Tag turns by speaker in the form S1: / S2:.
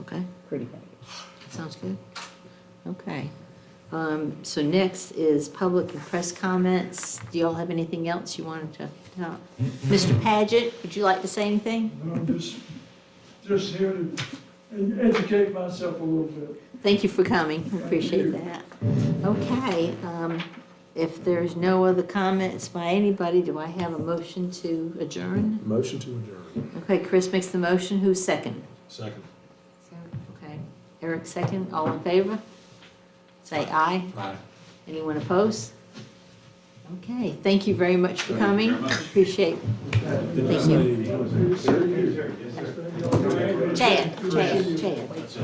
S1: Okay,
S2: pretty vague.
S1: sounds good. Okay. Um, So next is public and press comments. Do y'all have anything else you wanted to talk? Mr. Paget, would you like to say anything?
S3: No, I'm just, just here to educate myself a little bit.
S1: Thank you for coming, I appreciate
S3: you.
S1: that. Okay, um, if there's no other comments by anybody, do I have a motion to adjourn?
S4: Motion to adjourn.
S1: Okay, Chris makes the motion, who's second?
S4: Second.
S1: Okay, Eric second, all in favor? Say aye.
S4: Aye.
S1: Anyone opposed? Okay, thank you very much for coming. Appreciate
S4: Did you
S1: Thank
S4: say-
S1: Chad, Chad, Chad.